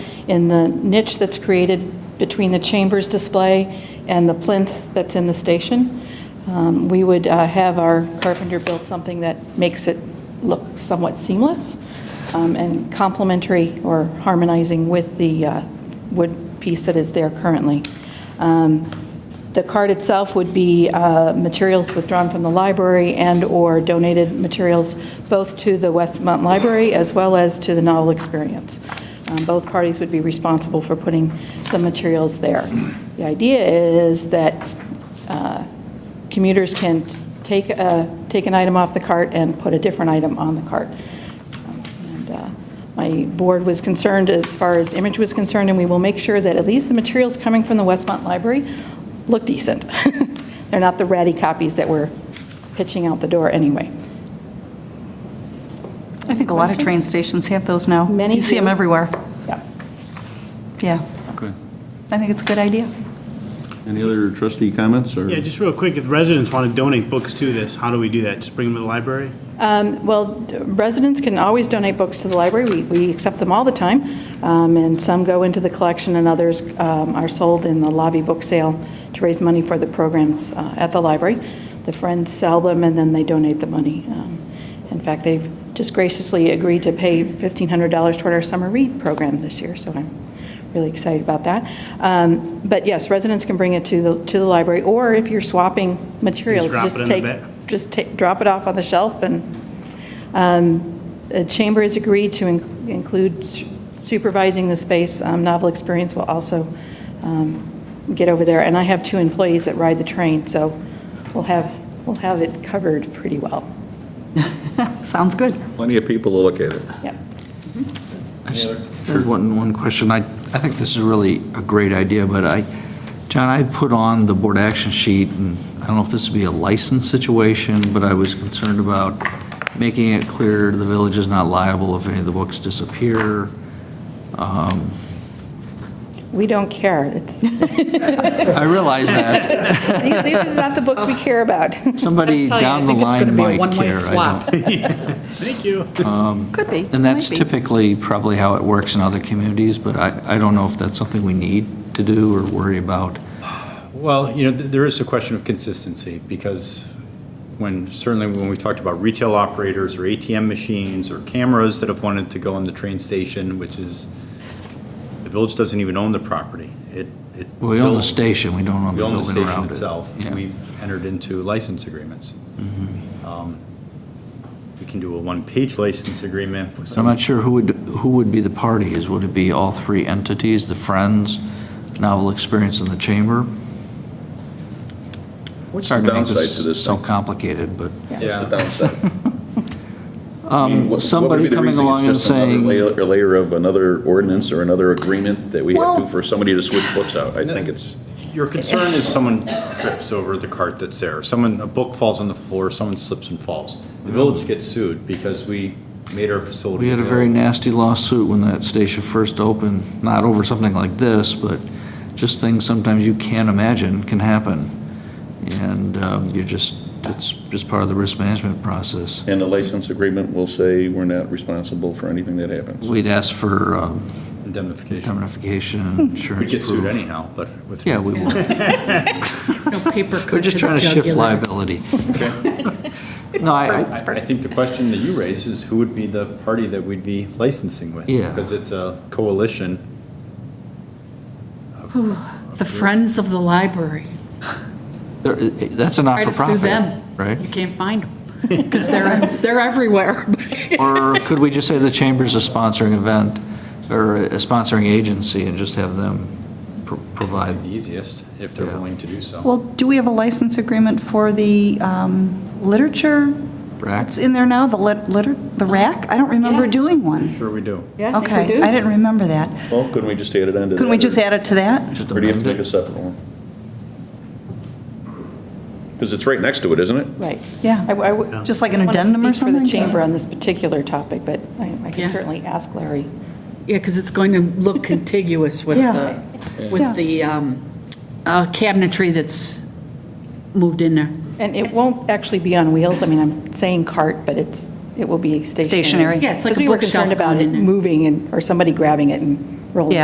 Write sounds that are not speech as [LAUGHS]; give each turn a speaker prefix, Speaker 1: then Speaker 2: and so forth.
Speaker 1: in the niche that's created between the chambers display and the plinth that's in the station. Um, We would uh, have our carpenter build something that makes it look somewhat seamless um, and complementary or harmonizing with the uh, wood piece that is there currently. Um, the card itself would be uh, materials withdrawn from the library and/or donated materials both to the Westmont Library as well as to the Novel Experience. Um, Both parties would be responsible for putting some materials there. The idea is that uh, commuters can t- take, a- take an item off the cart and put a different item on the cart. And, uh, My board was concerned as far as image was concerned, and we will make sure that at least the materials coming from the Westmont Library look decent. [LAUGHS] They're not the ratty copies that we're pitching out the door anyway.
Speaker 2: I think a lot of train stations have those now.
Speaker 1: Many
Speaker 2: You see them
Speaker 1: do.
Speaker 2: everywhere.
Speaker 1: Yeah.
Speaker 2: Yeah,
Speaker 3: Okay.
Speaker 2: I think it's a good idea.
Speaker 3: Any other trustee comments, or?
Speaker 4: Yeah, just real quick, if residents want to donate books to this, how do we do that? Just bring them to the library?
Speaker 1: Um, Well, residents can always donate books to the library. We we accept them all the time, Um, and some go into the collection, and others um, are sold in the lobby book sale to raise money for the programs uh, at the library. The Friends sell them, and then they donate the money. Um, In fact, they've just graciously agreed to pay $1,500 toward our summer read program this year, so I'm really excited about that. Um, But yes, residents can bring it to the to the library, or if you're swapping materials,
Speaker 4: drop it
Speaker 1: just
Speaker 4: in the
Speaker 1: take
Speaker 4: ba-
Speaker 1: just take, drop it off on the shelf, and um, the chamber has agreed to in- include su- supervising the space. Um, Novel Experience will also um, get over there, and I have two employees that ride the train, so we'll have, we'll have it covered pretty well.
Speaker 2: Sounds good.
Speaker 3: Plenty of people to look at it.
Speaker 1: Yep.
Speaker 5: I just had one, one question. I, I think this is really a great idea, but I, John, I had put on the board action sheet, and I don't know if this would be a license situation, but I was concerned about making it clear the village is not liable if any of the books disappear.
Speaker 1: We don't care. It's, [LAUGHS] these
Speaker 5: I realize
Speaker 6: [LAUGHS]
Speaker 5: that
Speaker 1: these are not the books we care about. [LAUGHS]
Speaker 5: somebody
Speaker 6: tell you, I
Speaker 5: down the
Speaker 6: think it's
Speaker 5: line
Speaker 6: gonna be
Speaker 5: might care.
Speaker 6: a one-way
Speaker 5: I
Speaker 6: swap.
Speaker 5: don't-
Speaker 4: Thank you.
Speaker 2: Could be.
Speaker 5: And that's
Speaker 2: Might be.
Speaker 5: typically probably how it works in other communities, but I, I don't know if that's something we need to do or worry about.
Speaker 7: Well, you know, th- there is a question of consistency, because when, certainly when we talked about retail operators or ATM machines or cameras that have wanted to go on the train station, which is, the village doesn't even own the property. It, it.
Speaker 5: We own the station, we don't own
Speaker 7: We
Speaker 5: the
Speaker 7: own the
Speaker 5: building
Speaker 7: station
Speaker 5: around it.
Speaker 7: itself.
Speaker 5: Yeah. Mm-hmm.
Speaker 7: We've entered into license agreements. Um, We can do a one-page license agreement with
Speaker 5: So I'm
Speaker 7: some,
Speaker 5: not sure who would, who would be the parties. Would it be all three entities, the Friends, Novel Experience, and the Chamber?
Speaker 3: What's the
Speaker 5: Sorry to make
Speaker 3: downside to this
Speaker 5: So
Speaker 3: thing?
Speaker 5: complicated, but
Speaker 3: What's
Speaker 7: yeah,
Speaker 3: the downside? I mean, what- what would be
Speaker 5: somebody
Speaker 3: the
Speaker 5: coming
Speaker 3: reason? It's
Speaker 5: along and
Speaker 3: just another
Speaker 5: saying-
Speaker 3: layer- Layer of another ordinance or another agreement that we have to,
Speaker 2: Well-
Speaker 3: for somebody to switch books out. I think it's,
Speaker 7: your concern is someone trips over the cart that's there, someone, a book falls on the floor, someone slips and falls. The village gets sued because we made our facility.
Speaker 5: we had a very
Speaker 7: available.
Speaker 5: nasty lawsuit when that station first opened, not over something like this, but just things sometimes you can't imagine can happen. And um, you're just, it's just part of the risk management process.
Speaker 3: and the license agreement will say we're not responsible for anything that happens.
Speaker 5: We'd ask for um,
Speaker 7: Indemnification.
Speaker 5: indemnification, insurance
Speaker 7: We get sued
Speaker 5: proof.
Speaker 7: anyhow, but with.
Speaker 5: Yeah, we will.
Speaker 6: No paper cut
Speaker 5: We're just
Speaker 6: to the
Speaker 5: trying to shift
Speaker 6: jugular.
Speaker 5: liability. [LAUGHS] No, I, I-
Speaker 7: I, I think the question that you raise is who would be the party that we'd be licensing with?
Speaker 5: Yeah.
Speaker 7: Because it's a coalition.
Speaker 6: The Friends of the Library.
Speaker 5: there- that's a
Speaker 6: Try to sue
Speaker 5: not-for-profit,
Speaker 6: them. You
Speaker 5: right?
Speaker 6: can't find them, because they're, they're everywhere. [LAUGHS]
Speaker 5: Or could we just say the chamber's a sponsoring event, or a sponsoring agency, and just have them pro- provide?
Speaker 7: The easiest, if they're
Speaker 5: Yeah.
Speaker 7: willing to do so.
Speaker 2: Well, do we have a license agreement for the um, literature?
Speaker 5: Rack.
Speaker 2: It's in there now, the lit- liter, the rack? I don't remember doing one.
Speaker 7: Sure we do.
Speaker 6: Yeah, I think we
Speaker 2: Okay, I
Speaker 6: do.
Speaker 2: didn't remember that.
Speaker 3: Well, couldn't we just add it onto that?
Speaker 2: Couldn't we
Speaker 3: or-
Speaker 2: just add it to that?
Speaker 5: just
Speaker 3: Or do you have to
Speaker 5: amend
Speaker 3: make
Speaker 5: it?
Speaker 3: a separate one? Because it's right next to it, isn't it?
Speaker 1: Right.
Speaker 2: Yeah.
Speaker 1: I- I would-
Speaker 2: Just like an
Speaker 1: I wanna
Speaker 2: addendum or
Speaker 1: speak for
Speaker 2: something?
Speaker 1: the chamber on this particular topic, but I I
Speaker 6: Yeah.
Speaker 1: can certainly ask Larry.
Speaker 6: Yeah, because it's going to look contiguous with
Speaker 2: Yeah.
Speaker 6: the, with the um, uh, cabinetry that's moved in there.
Speaker 1: And it won't actually be on wheels. I mean, I'm saying cart, but it's, it will be stationary.
Speaker 2: Stationary.
Speaker 6: Yeah, it's like a
Speaker 1: Because we were
Speaker 6: bookshelf
Speaker 1: concerned about
Speaker 6: going
Speaker 1: it
Speaker 6: in there.
Speaker 1: moving and, or somebody grabbing it and rolling
Speaker 2: Yeah.